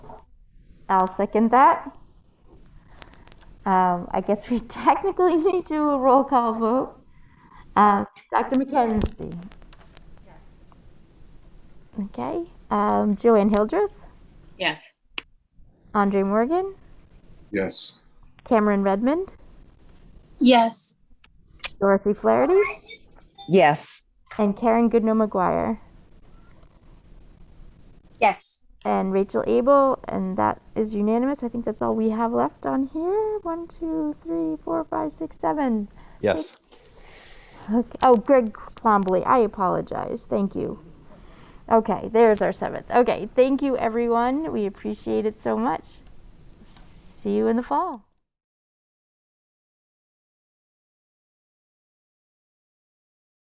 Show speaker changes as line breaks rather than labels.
I'll second that. Um, I guess we technically need to do a roll call vote. Uh, Dr. McKenzie? Okay, um, Joanne Hildreth,
Yes.
Andre Morgan,
Yes.
Cameron Redmond,
Yes.
Dorothy Flaherty,
Yes.
and Karen Goodnow McGuire,
Yes.
and Rachel Abel, and that is unanimous. I think that's all we have left on here. One, two, three, four, five, six, seven.
Yes.
Okay. Oh, Greg Clombly, I apologize. Thank you. Okay, there's our seventh. Okay, thank you, everyone. We appreciate it so much. See you in the fall.